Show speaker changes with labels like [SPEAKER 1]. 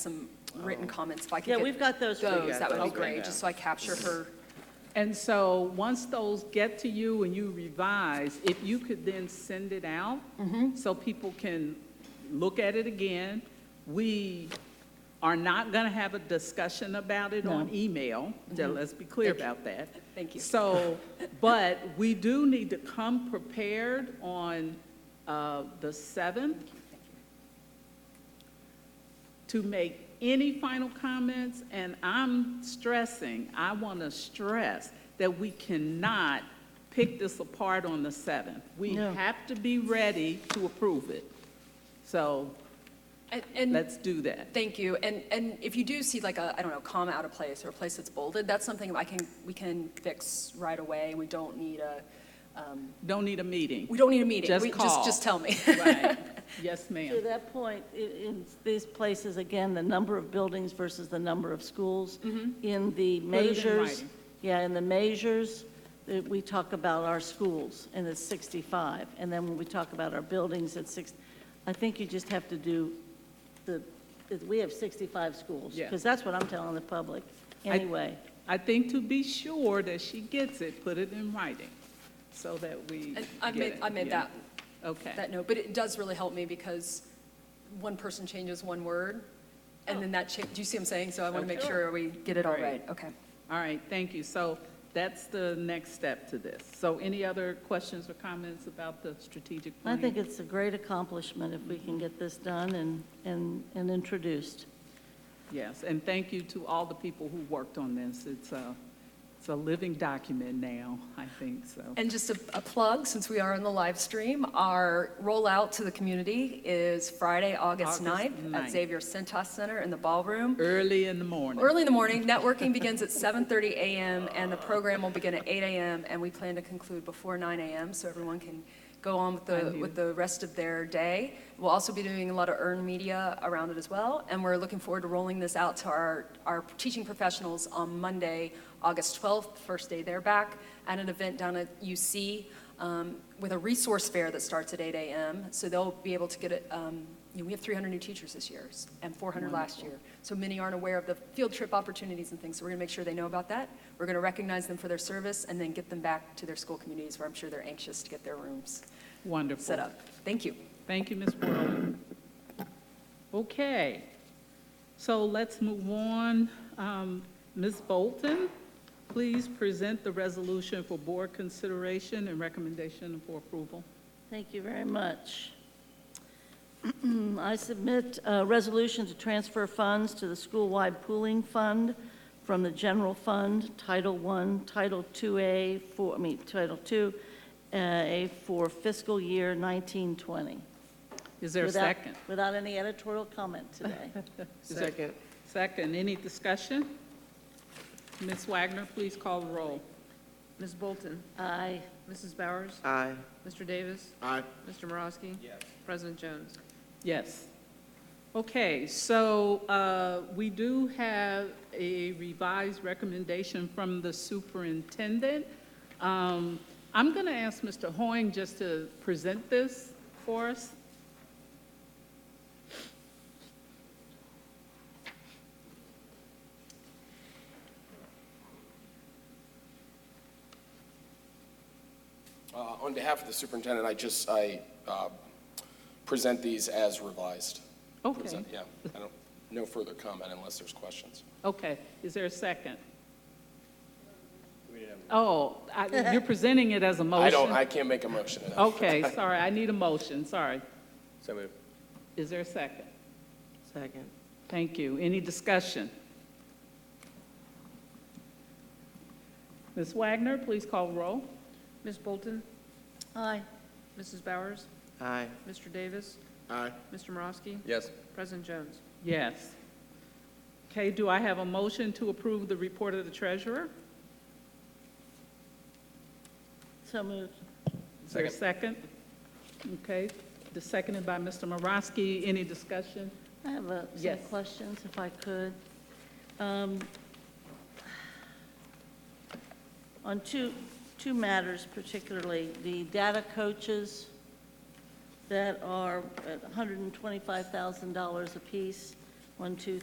[SPEAKER 1] some written comments, if I could
[SPEAKER 2] Yeah,
[SPEAKER 1] get
[SPEAKER 2] we've got those. for you
[SPEAKER 1] those, that would be
[SPEAKER 2] guys.
[SPEAKER 1] great, just so I capture her.
[SPEAKER 3] And so, once those get to you and you revise, if you could then send it out
[SPEAKER 1] Mm-hmm.
[SPEAKER 3] so people can look at it again. We are not going to have a discussion about it on email. Just Let's be clear about that.
[SPEAKER 1] Mm-hmm. Thank you.
[SPEAKER 3] So, but we do need to come prepared on uh, the 7th to make any final comments, and I'm stressing, I want to stress that we cannot pick this apart on the 7th. We have to be ready to approve it. So
[SPEAKER 1] And- And,
[SPEAKER 3] let's do that.
[SPEAKER 1] thank you, and, and if you do see like a, I don't know, comma out of place or a place that's bolded, that's something I can, we can fix right away. We don't need a,
[SPEAKER 3] Don't need a meeting.
[SPEAKER 1] we don't need a meeting.
[SPEAKER 3] Just
[SPEAKER 1] We-
[SPEAKER 3] call.
[SPEAKER 1] Just tell me.
[SPEAKER 3] Right. Yes,
[SPEAKER 2] To
[SPEAKER 3] ma'am.
[SPEAKER 2] that point, i- in these places, again, the number of buildings versus the number of schools, in the measures.
[SPEAKER 3] Mm-hmm. writing.
[SPEAKER 2] Yeah, in the measures, uh, we talk about our schools, and it's 65. And then when we talk about our buildings, it's six, I think you just have to do the, that we have 65 schools.
[SPEAKER 3] Yeah.
[SPEAKER 2] Because that's what I'm telling the public,
[SPEAKER 3] I-
[SPEAKER 2] anyway.
[SPEAKER 3] I think to be sure that she gets it, put it in writing so that we
[SPEAKER 1] And I
[SPEAKER 3] get
[SPEAKER 1] made,
[SPEAKER 3] it.
[SPEAKER 1] I made
[SPEAKER 3] Yeah.
[SPEAKER 1] that,
[SPEAKER 3] Okay.
[SPEAKER 1] that note, but it does really help me because one person changes one word, and then that cha, do you see what I'm saying? So I want to make
[SPEAKER 3] Okay.
[SPEAKER 1] sure we get it all
[SPEAKER 3] Great.
[SPEAKER 1] right, okay.
[SPEAKER 3] All right, thank you. So that's the next step to this. So any other questions or comments about the strategic
[SPEAKER 2] I
[SPEAKER 3] plan?
[SPEAKER 2] think it's a great accomplishment if we can get this done and, and, and introduced.
[SPEAKER 3] Yes, and thank you to all the people who worked on this. It's a, it's a living document now, I think, so.
[SPEAKER 1] And just a, a plug, since we are on the live stream, our rollout to the community is Friday, August
[SPEAKER 3] August
[SPEAKER 1] 9th at
[SPEAKER 3] 9th.
[SPEAKER 1] Xavier Centos Center in the ballroom.
[SPEAKER 3] Early in the morning.
[SPEAKER 1] Early in the morning, networking begins at 7:30 a.m. and the program will begin at 8 a.m. and we plan to conclude before 9 a.m. so everyone can go on with the,
[SPEAKER 3] I'm here.
[SPEAKER 1] with the rest of their day. We'll also be doing a lot of earned media around it as well, and we're looking forward to rolling this out to our, our teaching professionals on Monday, August 12th, first day they're back, at an event down at UC um, with a resource fair that starts at 8 a.m. So they'll be able to get it, um, you know, we have 300 new teachers this year s- and 400 last year. So many aren't aware of the field trip opportunities and things, so we're going to make sure they know about that. We're going to recognize them for their service and then get them back to their school communities where I'm sure they're anxious to get their rooms
[SPEAKER 3] Wonderful.
[SPEAKER 1] set up. Thank you.
[SPEAKER 3] Thank you, Ms. Whirling. Okay, so let's move on. Um, Ms. Bolton, please present the resolution for board consideration and recommendation for approval.
[SPEAKER 2] Thank you very much. I submit a resolution to transfer funds to the school-wide pooling fund from the general fund, Title I, Title II-A, for, I mean, Title II, uh, A for fiscal year 1920.
[SPEAKER 3] Is there a
[SPEAKER 2] Without-
[SPEAKER 3] second?
[SPEAKER 2] Without any editorial comment today.
[SPEAKER 3] Is there-
[SPEAKER 4] Second.
[SPEAKER 3] Second, any discussion? Ms. Wagner, please call the roll.
[SPEAKER 5] Ms. Bolton?
[SPEAKER 2] Aye.
[SPEAKER 5] Mrs. Bowers?
[SPEAKER 4] Aye.
[SPEAKER 5] Mr. Davis?
[SPEAKER 4] Aye.
[SPEAKER 5] Mr. Morosky? Yes. President Jones?
[SPEAKER 3] Yes. Okay, so uh, we do have a revised recommendation from the superintendent. Um, I'm going to ask Mr. Hoing just to present this for us.
[SPEAKER 6] Uh, On behalf of the superintendent, I just, I uh, present these as revised.
[SPEAKER 3] Okay.
[SPEAKER 6] Present- Yeah, I don't, no further comment unless there's questions.
[SPEAKER 3] Okay, is there a second? Oh, I- you're presenting it as a motion?
[SPEAKER 6] I don't, I can't make a motion. to that.
[SPEAKER 3] Oh, Okay, sorry, I need a motion, sorry.
[SPEAKER 6] So moved.
[SPEAKER 3] Is there a second?
[SPEAKER 4] Second.
[SPEAKER 3] Thank you. Any discussion? Ms. Wagner, please call roll.
[SPEAKER 5] Ms. Bolton?
[SPEAKER 2] Aye.
[SPEAKER 5] Mrs. Bowers?
[SPEAKER 4] Aye.
[SPEAKER 5] Mr. Davis?
[SPEAKER 4] Aye.
[SPEAKER 5] Mr. Morosky?
[SPEAKER 6] Yes.
[SPEAKER 5] President Jones?
[SPEAKER 3] Yes. Okay, do I have a motion to approve the report of the treasurer?
[SPEAKER 2] So moved.
[SPEAKER 3] Is there a second? Okay, the seconded by Mr. Morosky. Any discussion?
[SPEAKER 2] I have a, some
[SPEAKER 3] Yes.
[SPEAKER 2] questions, if I could. Um, On two, two matters particularly, the data coaches that are at $125,000 apiece, one, two,